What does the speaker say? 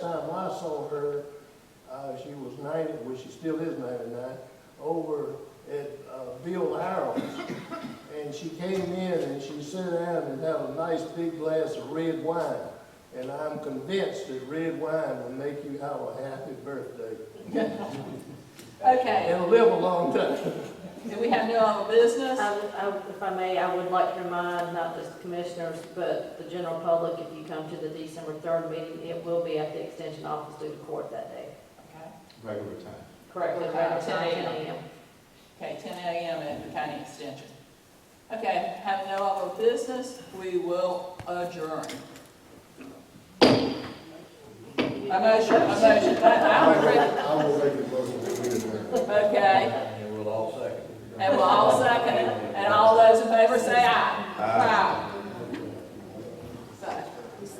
Time I saw her, uh, she was ninety, well, she still is ninety-nine, over at, uh, Bill Harrell's. And she came in and she sat down and had a nice big glass of red wine. And I'm convinced that red wine will make you have a happy birthday Okay, and live a long time. do we have no other business? I would- I would- Um, If I may, I would like to remind not just the commissioners, but the general public, if you come to the December 3rd meeting, it will be at the extension office due to court that day. Okay. regular time. Correct. Okay, Around 10 a.m. 10 a.m. Okay, ten AM at the county extension. Okay, have no other business, we will adjourn. A motion, a motion, I, I agree. I will make a motion that we adjourn. okay, And we'll all second. and we'll all second it.